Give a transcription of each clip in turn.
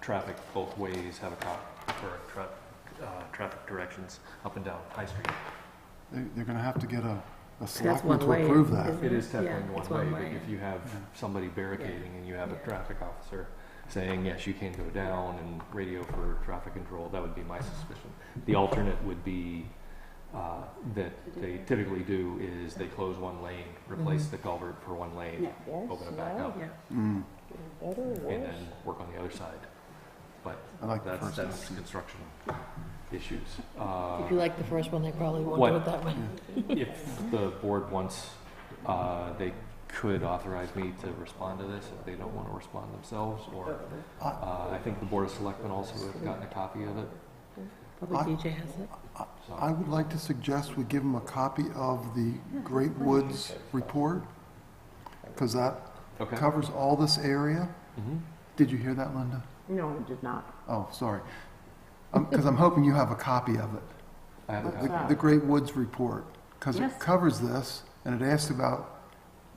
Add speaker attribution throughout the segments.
Speaker 1: traffic both ways, have a cop for tra- uh, traffic directions up and down High Street.
Speaker 2: They- They're going to have to get a, a
Speaker 3: That's
Speaker 2: selectman
Speaker 3: one
Speaker 2: to
Speaker 3: way.
Speaker 2: approve that.
Speaker 3: isn't
Speaker 1: It is
Speaker 3: Yeah,
Speaker 1: technically
Speaker 3: it's
Speaker 1: one way,
Speaker 3: one-way.
Speaker 1: but if you have somebody barricading and you have a
Speaker 3: Yeah.
Speaker 1: traffic officer saying, yes, you can go down and radio for traffic control, that would be my suspicion. The alternate would be, uh, that they typically do is they close one lane, replace
Speaker 3: Mhm.
Speaker 1: the culvert for one lane,
Speaker 4: Yes, no,
Speaker 1: open it back up,
Speaker 3: Yeah,
Speaker 2: Mm,
Speaker 4: better or
Speaker 1: and
Speaker 4: worse.
Speaker 1: then work on the other side. But
Speaker 2: I like the
Speaker 1: that's,
Speaker 2: first
Speaker 1: that's
Speaker 2: option.
Speaker 1: construction issues. Uh,
Speaker 3: if you like the first one, they probably won't
Speaker 1: What?
Speaker 3: do it that way.
Speaker 1: If the board wants, uh, they could authorize me to respond to this if they don't want to respond themselves, or, uh, I think the Board of Selectmen also have gotten a copy of it,
Speaker 2: I-
Speaker 3: Probably DJ has it.
Speaker 2: I
Speaker 1: so.
Speaker 2: would like to suggest we give them a copy of the Great Woods report, because that
Speaker 1: Okay.
Speaker 2: covers all this area.
Speaker 1: Mhm.
Speaker 2: Did you hear that, Linda?
Speaker 4: No, it did not.
Speaker 2: Oh, sorry. Because I'm hoping you have a copy of it.
Speaker 1: I have a
Speaker 2: The-
Speaker 1: copy.
Speaker 2: The Great Woods report, because it
Speaker 4: Yes.
Speaker 2: covers this, and it asks about,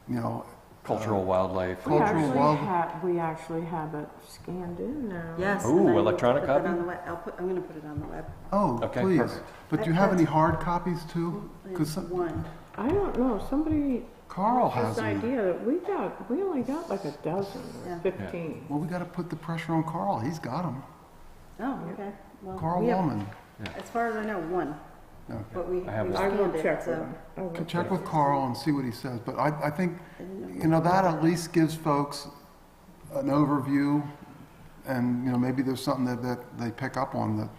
Speaker 2: you know,
Speaker 1: Cultural wildlife.
Speaker 2: Cultural wild-
Speaker 4: we actually have it scanned in now.
Speaker 5: Yes.
Speaker 1: Ooh,
Speaker 5: and I will
Speaker 1: electronic
Speaker 5: put that
Speaker 1: copy?
Speaker 5: on the web. I'll put, I'm gonna put it on the web.
Speaker 2: oh,
Speaker 1: Okay,
Speaker 2: please.
Speaker 1: perfect.
Speaker 2: But do you have any hard copies too? Because
Speaker 5: It's One.
Speaker 4: I don't know, somebody,
Speaker 2: Carl has
Speaker 4: this
Speaker 2: them.
Speaker 4: idea that we got, we only got like a dozen
Speaker 5: Yeah.
Speaker 4: or fifteen.
Speaker 2: Well, we got to put the pressure on Carl. He's got them.
Speaker 5: Oh, okay. Well,
Speaker 2: Carl
Speaker 5: we have-
Speaker 2: Wallman.
Speaker 5: As far as I know, one,
Speaker 2: Okay.
Speaker 5: but we,
Speaker 1: I have
Speaker 5: we
Speaker 1: one.
Speaker 4: I will
Speaker 5: scanned it,
Speaker 4: check with
Speaker 5: so.
Speaker 4: them. I will
Speaker 2: Can check with Carl and see what he says, but I, I think,
Speaker 5: I didn't know.
Speaker 2: you know, that at least gives folks an overview, and, you know, maybe there's something that, that they pick up on that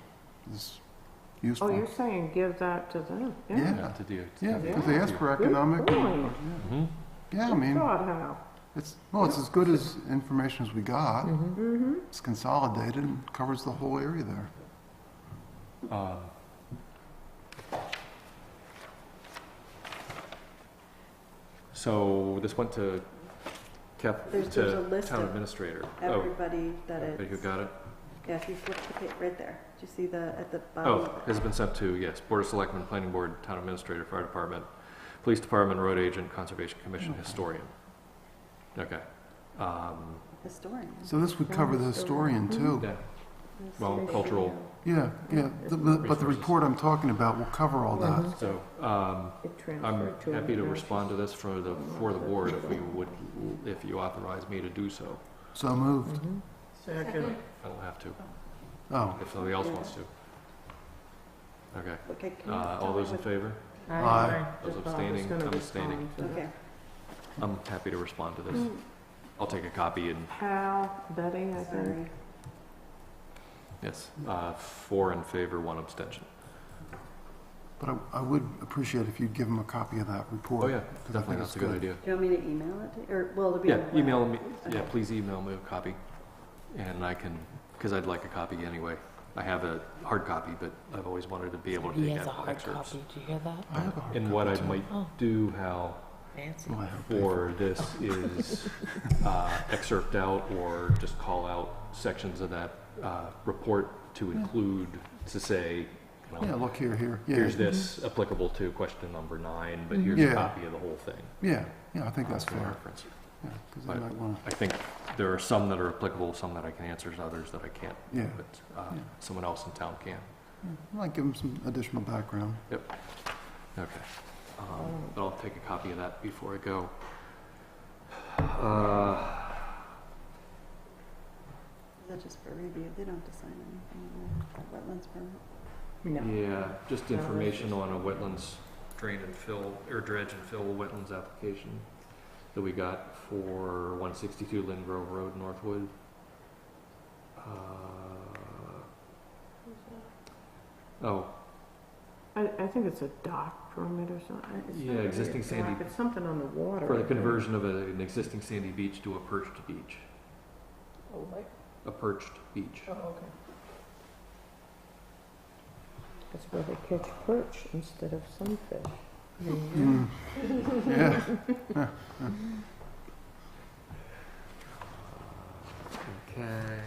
Speaker 2: is
Speaker 4: Oh,
Speaker 2: useful.
Speaker 4: you're saying give that to them?
Speaker 2: Yeah,
Speaker 1: Not to do. to
Speaker 2: yeah,
Speaker 1: have
Speaker 2: because they ask for economic,
Speaker 4: Good point.
Speaker 1: Mhm.
Speaker 2: yeah, I mean,
Speaker 4: God, how?
Speaker 2: it's, well, it's as good as information as we got.
Speaker 4: Mm-hmm.
Speaker 2: It's consolidated and covers the whole area there.
Speaker 1: Um, So this went to Cap,
Speaker 5: There's- there's a
Speaker 1: to
Speaker 5: list
Speaker 1: town
Speaker 5: of
Speaker 1: administrator. Oh,
Speaker 5: Everybody that
Speaker 1: everybody who
Speaker 5: it's,
Speaker 1: got it?
Speaker 5: yeah, if you flip the page, right there. Do you see the, at the bottom
Speaker 1: Oh,
Speaker 5: of it?
Speaker 1: has been sent to, yes, Board of Selectmen, Planning Board, Town Administrator, Fire Department, Police Department, Road Agent, Conservation Commission, Historian. Okay. Um,
Speaker 5: Historian.
Speaker 2: So this would cover the historian too.
Speaker 1: yeah, well, cultural,
Speaker 2: Yeah, yeah, the- the- but the report I'm talking about will cover all that.
Speaker 1: so, um,
Speaker 4: It
Speaker 1: I'm
Speaker 4: transferred to.
Speaker 1: happy to
Speaker 4: another.
Speaker 1: respond to this for the, for the board if we would, if you authorize me to do so.
Speaker 2: So moved.
Speaker 4: Mm-hmm. Second.
Speaker 1: I don't have to,
Speaker 2: Oh,
Speaker 1: if somebody else wants to. Okay,
Speaker 5: Okay, can you
Speaker 1: uh, all
Speaker 5: tell me
Speaker 1: those in
Speaker 5: what-
Speaker 1: favor?
Speaker 4: I-
Speaker 2: Aye.
Speaker 4: I just
Speaker 1: Those
Speaker 4: thought I was
Speaker 1: abstaining,
Speaker 4: gonna
Speaker 1: I'm abstaining.
Speaker 4: respond to that.
Speaker 5: Okay,
Speaker 1: I'm happy to respond to this.
Speaker 5: Mm.
Speaker 1: I'll take a copy and,
Speaker 4: Hal, Betty, I think.
Speaker 5: sorry.
Speaker 1: yes, uh, four in favor, one abstention.
Speaker 2: but I- I would appreciate if you'd give him a copy of that report.
Speaker 1: Oh, yeah,
Speaker 2: 'cause I think
Speaker 1: definitely,
Speaker 2: it's
Speaker 1: that's a good idea.
Speaker 5: Do you want me to email it, to- or, well, it'll be.
Speaker 1: Yeah,
Speaker 5: on the
Speaker 1: email
Speaker 5: web.
Speaker 1: me, yeah, please email me a copy, and I can, because I'd like a copy anyway. I have a hard copy, but I've always wanted to be able to
Speaker 3: He
Speaker 1: take
Speaker 3: has a
Speaker 1: out
Speaker 3: hard
Speaker 1: excerpts.
Speaker 3: copy, do you hear that?
Speaker 2: I have a hard
Speaker 1: And what I
Speaker 2: copy, too.
Speaker 1: might
Speaker 3: Oh,
Speaker 1: do, Hal,
Speaker 3: fancy.
Speaker 2: Oh, I have a paper.
Speaker 1: for this is uh, excerpt out or just call out sections of that uh, report to include, to say, you
Speaker 2: Yeah,
Speaker 1: know,
Speaker 2: look here, here. Yeah,
Speaker 1: here's this
Speaker 3: Mm-hmm.
Speaker 1: applicable to question number nine, but here's
Speaker 2: Yeah.
Speaker 1: a copy of the whole thing.
Speaker 2: Yeah, yeah, I think that's
Speaker 1: for
Speaker 2: fair.
Speaker 1: reference.
Speaker 2: Yeah, 'cause they
Speaker 1: But-
Speaker 2: might want
Speaker 1: I think there are some that are applicable, some that I can answer, and others that I can't.
Speaker 2: to, yeah,
Speaker 1: But uh,
Speaker 2: Yeah.
Speaker 1: someone else in town can.
Speaker 2: I might give them some additional background.
Speaker 1: Okay. Um, But I'll take a copy of that before I go. Uh,
Speaker 5: Is that just for review? They don't have to sign anything, uh, wetlands permit?
Speaker 4: No.
Speaker 1: Yeah, just
Speaker 4: No,
Speaker 1: information on a wetlands drain and fill, or dredge and fill wetlands application that we got for 162 Lynn Grove Road, Northwood. Uh, Oh,
Speaker 4: I, I think it's a dock permit or something. It's
Speaker 1: Yeah,
Speaker 4: not really
Speaker 1: existing
Speaker 4: a dock.
Speaker 1: sandy-
Speaker 4: It's something on the water.
Speaker 1: for
Speaker 4: I
Speaker 1: the
Speaker 4: think.
Speaker 1: conversion of a- an existing sandy beach to a perched beach,
Speaker 3: Oh, what?
Speaker 1: a perched beach.
Speaker 3: Oh, okay.
Speaker 4: That's where they catch perch instead of sunfish.
Speaker 3: There you go.
Speaker 2: Mm. Yeah,
Speaker 1: Okay.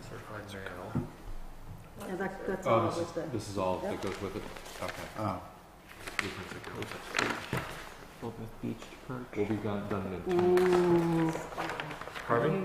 Speaker 1: Certified mail.
Speaker 5: Yeah, that's, that's all
Speaker 1: Oh,
Speaker 5: it
Speaker 1: this
Speaker 5: was
Speaker 1: is,
Speaker 5: there.
Speaker 1: this is all that
Speaker 5: Yep.
Speaker 1: goes with it? Okay.
Speaker 2: oh,
Speaker 1: We'll be gone, done in two.
Speaker 5: Mm.
Speaker 1: Harvey?